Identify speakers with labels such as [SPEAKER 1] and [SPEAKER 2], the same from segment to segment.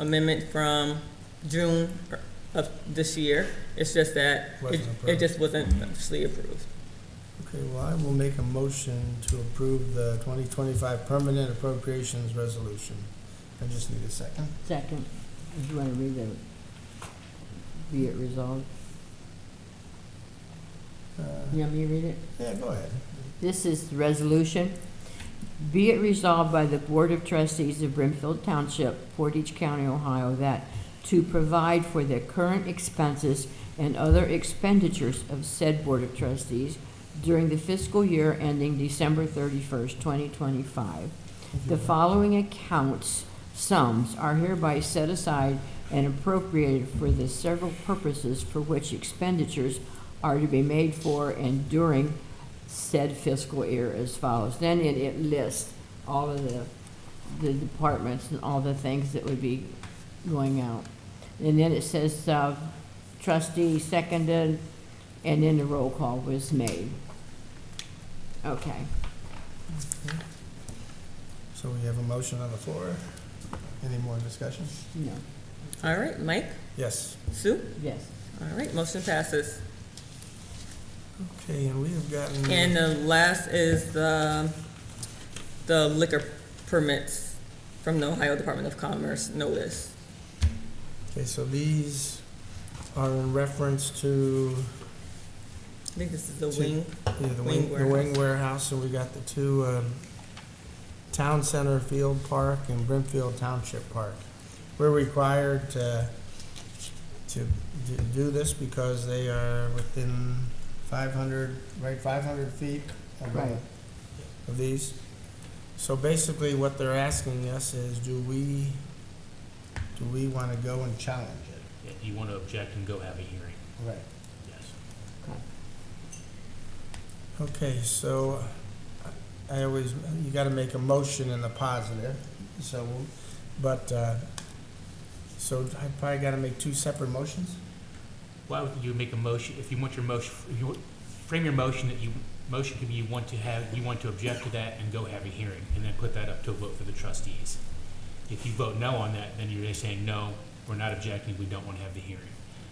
[SPEAKER 1] amendment from June of this year. It's just that it,
[SPEAKER 2] Wasn't
[SPEAKER 1] it
[SPEAKER 2] approved.
[SPEAKER 1] just wasn't officially approved.
[SPEAKER 2] Okay, well, I will make a motion to approve the twenty twenty-five permanent appropriations resolution. I just need a second.
[SPEAKER 3] Second, if you want to read the, be it resolved,
[SPEAKER 2] Uh,
[SPEAKER 3] you want me to read it?
[SPEAKER 2] Yeah, go ahead.
[SPEAKER 3] This is the resolution. Be it resolved by the Board of Trustees of Brimfield Township, Portage County, Ohio, that to provide for the current expenses and other expenditures of said Board of Trustees during the fiscal year ending December thirty-first, twenty twenty-five, the following accounts, sums are hereby set aside and appropriated for the several purposes for which expenditures are to be made for and during said fiscal year as follows. Then it, it lists all of the, the departments and all the things that would be going out. And then it says, uh, trustee seconded, and then the roll call was made. Okay.
[SPEAKER 2] So we have a motion on the floor. Any more discussion?
[SPEAKER 3] No,
[SPEAKER 1] All right, Mike,
[SPEAKER 2] Yes.
[SPEAKER 1] Sue?
[SPEAKER 3] yes.
[SPEAKER 1] All right, motion passes.
[SPEAKER 2] Okay, and we have gotten.
[SPEAKER 1] And the last is the, the liquor permits from the Ohio Department of Commerce notice.
[SPEAKER 2] Okay, so these are in reference to
[SPEAKER 1] I think this is the
[SPEAKER 2] Two.
[SPEAKER 1] wing.
[SPEAKER 2] Yeah, the
[SPEAKER 1] Wing
[SPEAKER 2] wing, the wing warehouse, and we got the two, um, Town Center Field Park and Brimfield Township Park. We're required to, to d- do this because they are within five hundred, right, five hundred feet of, the-
[SPEAKER 3] Right.
[SPEAKER 2] of these. So basically, what they're asking us is, do we, do we wanna go and challenge it?
[SPEAKER 4] Yeah, You want to object and go have a hearing,
[SPEAKER 2] Right.
[SPEAKER 4] yes.
[SPEAKER 2] Okay, so uh, I always, you gotta make a motion in the positive, so, but, uh, so I probably gotta make two separate motions?
[SPEAKER 4] Why would you make a motion, if you want your motion, if you, frame your motion that you, motion could be you want to have, you want to object to that and go have a hearing, and then put that up to a vote for the trustees. If you vote no on that, then you're just saying, no, we're not objecting, we don't want to have the hearing.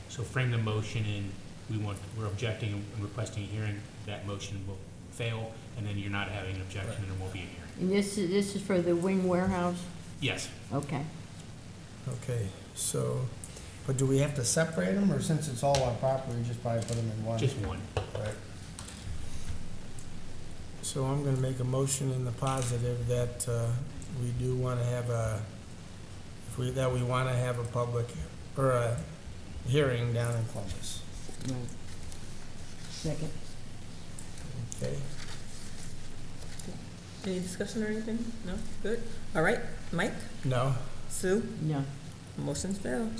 [SPEAKER 4] So frame the motion in, we want, we're objecting and requesting a hearing, that motion will fail, and then you're not having an objection, and there won't be a hearing.
[SPEAKER 3] And this is, this is for the wing warehouse?
[SPEAKER 4] Yes,
[SPEAKER 3] Okay.
[SPEAKER 2] Okay, so, but do we have to separate them, or since it's all our property, just probably put them in one?
[SPEAKER 4] just one.
[SPEAKER 2] Right. So I'm gonna make a motion in the positive that, uh, we do wanna have a, if we, that we wanna have a public, or a hearing down in Columbus.
[SPEAKER 3] Right. Second.
[SPEAKER 2] Okay,
[SPEAKER 1] Any discussion or anything? No? Good. All right, Mike,
[SPEAKER 2] no?
[SPEAKER 1] Sue,
[SPEAKER 3] No.
[SPEAKER 1] motion's failed.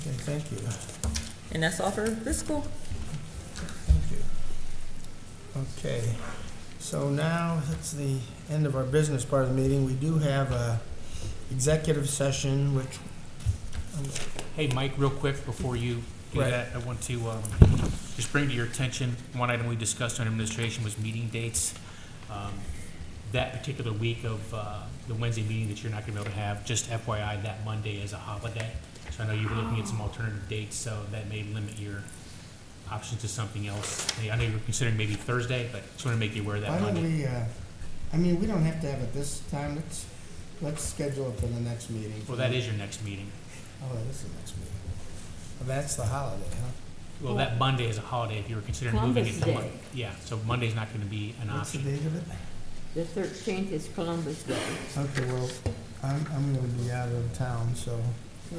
[SPEAKER 2] Okay, thank you,
[SPEAKER 1] And that's all for fiscal.
[SPEAKER 2] thank you. Okay, so now it's the end of our business part of the meeting. We do have a executive session, which,
[SPEAKER 4] Hey, Mike, real quick, before you do
[SPEAKER 2] Right.
[SPEAKER 4] that, I want to um, just bring to your attention, one item we discussed on administration was meeting dates. Um, That particular week of uh, the Wednesday meeting that you're not going to be able to have, just FYI, that Monday is a holiday. So I know you were looking at some alternative dates, so that may limit your options to something else. I mean, I know you were considering maybe Thursday, but just want to make you aware of
[SPEAKER 2] why
[SPEAKER 4] that
[SPEAKER 2] don't
[SPEAKER 4] Monday.
[SPEAKER 2] we, uh, I mean, we don't have to have it this time, let's, let's schedule it for the next meeting.
[SPEAKER 4] Well, that is your next meeting.
[SPEAKER 2] Oh, that is the next meeting. Oh, That's the holiday, huh?
[SPEAKER 4] Well, that Monday is a holiday if you were considering moving it to
[SPEAKER 3] Columbus
[SPEAKER 4] Monday.
[SPEAKER 3] Day.
[SPEAKER 4] Yeah, so Monday's not going to be an
[SPEAKER 2] What's the
[SPEAKER 4] option.
[SPEAKER 2] date of it?
[SPEAKER 3] The thirteenth is Columbus Day.
[SPEAKER 2] Okay, well, I'm, I'm gonna be out of town, so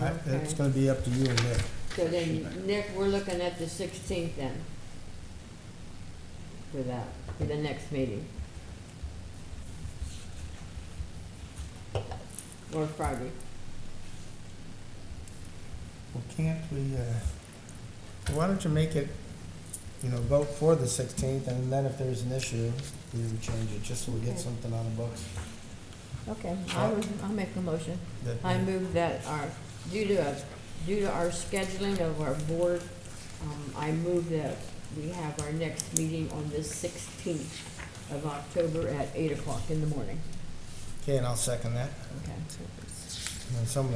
[SPEAKER 2] I,
[SPEAKER 3] Okay.
[SPEAKER 2] it's gonna be up to you and Nick.
[SPEAKER 3] So then, Nick, we're looking at the sixteenth then. For that, for the next meeting. Or Friday.
[SPEAKER 2] Well, can't we, uh, well, why don't you make it, you know, vote for the sixteenth, and then if there's an issue, we would change it, just so we get
[SPEAKER 3] Okay.
[SPEAKER 2] something on the books.
[SPEAKER 3] Okay,
[SPEAKER 2] I
[SPEAKER 3] will I'll make a motion.
[SPEAKER 2] that-
[SPEAKER 3] I move that our, due to, a- due to our scheduling of our board, um, I move that we have our next meeting on the sixteenth of October at eight o'clock in the morning.
[SPEAKER 2] Okay, and I'll second that.
[SPEAKER 3] Okay.
[SPEAKER 2] And some of